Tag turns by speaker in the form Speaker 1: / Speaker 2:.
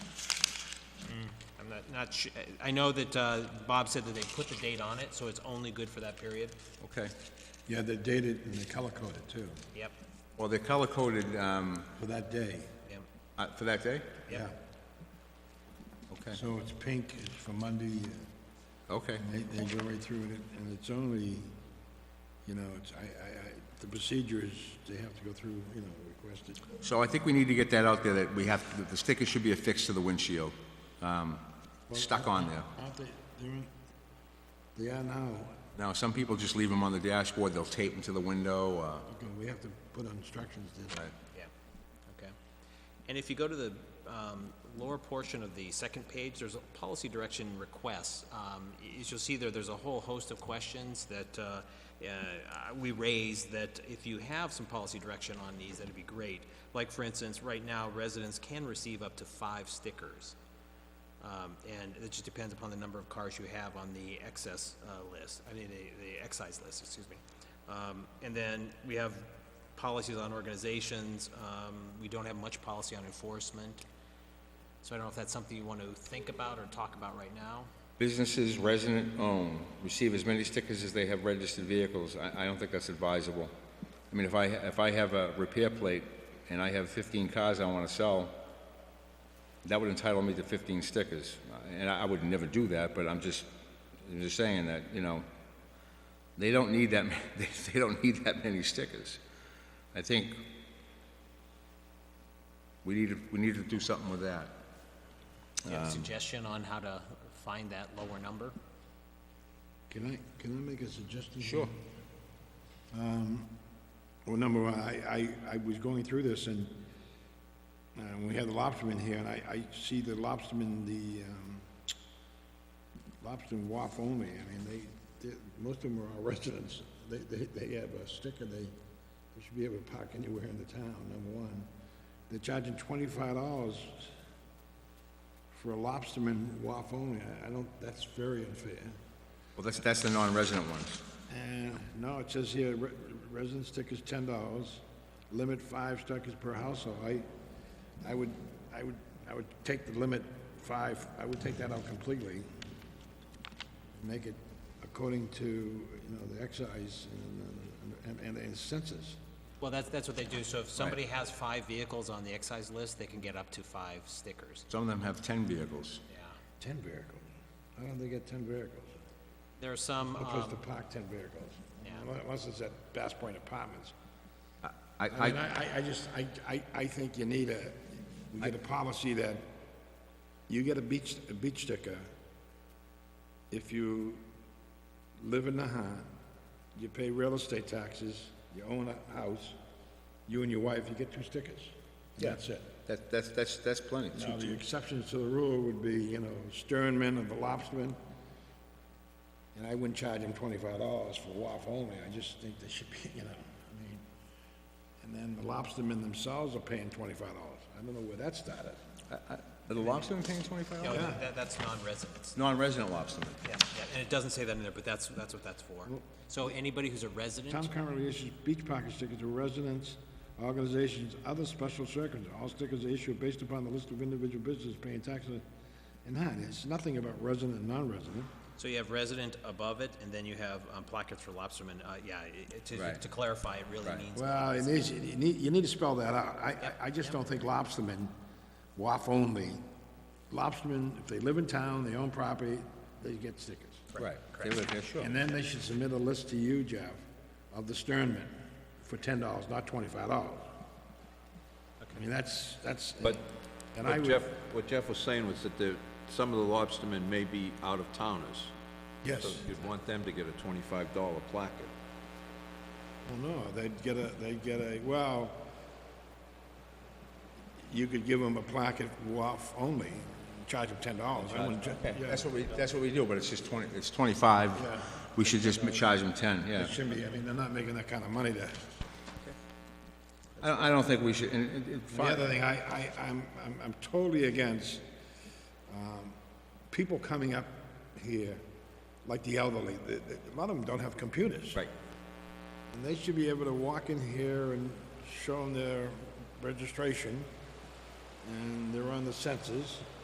Speaker 1: not, sh- I know that uh, Bob said that they put the date on it, so it's only good for that period.
Speaker 2: Okay.
Speaker 3: Yeah, they dated and they color-coded too,
Speaker 1: Yep,
Speaker 2: Well, they're color-coded um,
Speaker 3: for that day.
Speaker 1: yep,
Speaker 2: uh, for that day?
Speaker 3: Yeah.
Speaker 1: yep.
Speaker 2: Okay,
Speaker 3: So it's pink, it's for Monday, uh,
Speaker 2: okay.
Speaker 3: they, they go right through it, and it's only, you know, it's, I, I, I, the procedure is, they have to go through, you know, request it.
Speaker 2: So I think we need to get that out there, that we have, that the sticker should be affixed to the windshield, um, stuck on there.
Speaker 3: Aren't they, they're in, they are now,
Speaker 2: Now, some people just leave them on the dashboard, they'll tape them to the window, uh,
Speaker 3: okay, we have to put on instructions there.
Speaker 1: Yeah, okay. And if you go to the um, lower portion of the second page, there's a policy direction requests. Um, y- As you'll see there, there's a whole host of questions that uh, uh, we raise, that if you have some policy direction on these, that'd be great. Like, for instance, right now, residents can receive up to five stickers. Um, And it just depends upon the number of cars you have on the excess uh, list, I mean, the the excise list, excuse me. Um, And then we have policies on organizations. Um, We don't have much policy on enforcement. So I don't know if that's something you want to think about or talk about right now.
Speaker 2: Businesses resident-owned receive as many stickers as they have registered vehicles. I, I don't think that's advisable. I mean, if I, if I have a repair plate and I have 15 cars I want to sell, that would entitle me to 15 stickers. And I I would never do that, but I'm just, I'm just saying that, you know, they don't need that, ma- they, they don't need that many stickers. I think we need, to we need to do something with that.
Speaker 1: Do you have a suggestion on how to find that lower number?
Speaker 3: Can I, can I make a suggestion? here? Um,
Speaker 2: Sure.
Speaker 3: Well, number one, I, I, I was going through this and, uh we had the lobsterman here, and I, I see the lobsterman, the, um, lobsterman WAF only, I mean, they, they, most of them are our residents. They, they, they have a sticker, they, they should be able to park anywhere in the town, number one. They're charging twenty-five dollars for a lobsterman WAF only, I, I don't, that's very unfair.
Speaker 2: Well, that's, that's the non-resident ones.
Speaker 3: Uh, No, it says here, re- resident sticker's ten dollars, limit five stickers per household. I, I would, I would, I would take the limit five, I would take that out completely. Make it according to, you know, the excise and, and, and- and census.
Speaker 1: Well, that's, that's what they do. So if somebody has five vehicles on the excise list, they can get up to five stickers.
Speaker 2: Some of them have 10 vehicles.
Speaker 1: Yeah.
Speaker 3: Ten vehicles? How do they get ten vehicles?
Speaker 1: There are some,
Speaker 3: A place
Speaker 1: um,
Speaker 3: to park ten vehicles.
Speaker 1: Yeah.
Speaker 3: Unless it's at Bass Point Apartments.
Speaker 2: I,
Speaker 3: I mean,
Speaker 2: I,
Speaker 3: I, I- I just, I, I, I think you need a, we get a policy that you get a beach, a beach sticker if you live in Nahat, you pay real estate taxes, you own a house, you and your wife, you get two stickers. and That's it.
Speaker 2: that, that's, that's, that's plenty.
Speaker 3: Now, the exceptions to the rule would be, you know, sternmen and the lobstermen. And I wouldn't charge them twenty-five dollars for WAF only, I just think they should be, you know, I mean, and then the lobstermen themselves are paying twenty-five dollars. I don't know where that started.
Speaker 2: Uh, Are the lobstermen paying twenty-five
Speaker 1: no,
Speaker 2: dollars?
Speaker 1: that, that's non-residents.
Speaker 2: Non-resident lobstermen.
Speaker 1: Yeah, yeah, and it doesn't say that in there, but that's, that's what that's for.
Speaker 2: Mm.
Speaker 1: So anybody who's a
Speaker 3: Town
Speaker 1: resident,
Speaker 3: currently issues beach pocket stickers to residents, organizations, other special circumstances. All stickers are issued based upon the list of individual businesses paying taxes. And that, it's nothing about resident and non-resident.
Speaker 1: so you have resident above it, and then you have um, placards for lobstermen, uh, yeah, i- i- to,
Speaker 2: Right.
Speaker 1: to clarify, it really means.
Speaker 3: Well, it needs, you need, you need to spell that out. I, I I just don't think lobstermen, WAF only, lobstermen, if they live in town, they own property, they get stickers.
Speaker 2: Right. They live there, sure.
Speaker 3: And then they should submit a list to you, Jeff, of the sternmen for ten dollars, not twenty-five dollars. I mean, that's, that's,
Speaker 4: But
Speaker 3: and I
Speaker 4: what
Speaker 3: would,
Speaker 4: Jeff, what Jeff was saying was that the, some of the lobstermen may be out of towners. So
Speaker 3: yes,
Speaker 4: you'd want them to get a twenty-five dollar placket.
Speaker 3: well, Oh, no, they'd get a, they'd get a, well, you could give them a plaque at WAF only, charge them ten dollars. I wouldn't, ju-
Speaker 2: Okay,
Speaker 3: yeah.
Speaker 2: That's what we, that's what we do, but it's just twenty, it's twenty-five. We should just charge them ten, yeah.
Speaker 3: It shouldn't be, I mean, they're not making that kind of money to,
Speaker 2: I, don't- I don't think we should, and, and- and,
Speaker 3: the
Speaker 2: fine.
Speaker 3: other thing, I, I, I'm, I'm- I'm totally against, um, people coming up here, like the elderly, the, the, a lot of them don't have computers.
Speaker 2: Right,
Speaker 3: And they should be able to walk in here and show them their registration, and they're on the census,